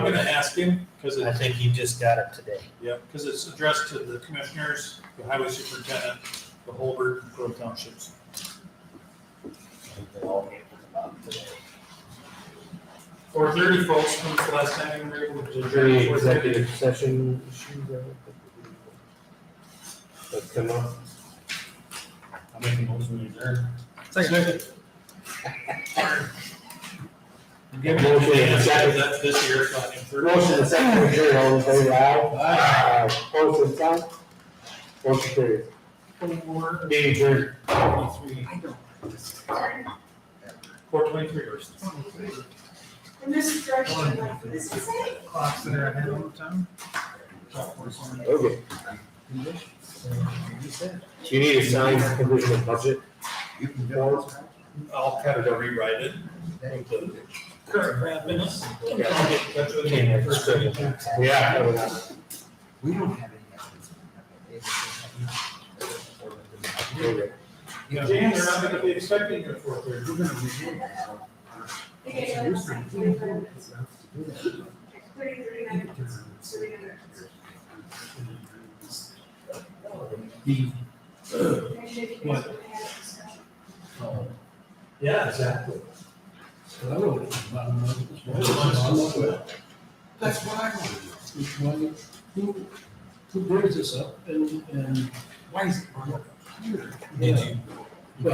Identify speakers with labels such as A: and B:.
A: gonna ask him, because
B: I
A: it,
B: think he just got it today.
A: yeah, because it's addressed to the commissioners, the highway superintendent, the Holbert, and Grove Townships.
B: I think they all gave it about today.
A: Four thirty, folks, from the last time we were able to.
C: Is there any executive session issues that that come up?
A: I'll make a motion to adjourn. Give me a
C: Motion and a second.
A: That's this year, so I can.
C: Motion to second to adjourn, all in favor, aye?
A: Aye.
C: Aye. Opposed, same sign? Motion carries.
A: Four
C: Meeting adjourned.
A: twenty-three. Four twenty-three versus.
D: And this is direction, like, this is it.
A: Clocks that are ahead all the time.
C: Okay. Do you need a signed provisional budget?
A: I'll have to rewrite it. Current grant minutes. I'll
C: Yeah.
A: get in touch with you first thing.
C: Yeah. I would have.
E: We don't have any.
C: Okay.
A: Jan, they're not gonna be expecting you at four thirty.
E: We're gonna review it.
D: Thirty-three minutes, three minutes.
E: The,
D: And maybe you guys would have a discussion.
E: uh,
A: Yeah, exactly.
E: I wrote it. That's what I wanted. Which one, who, who brings this up and, and why is it on here?
A: Did you,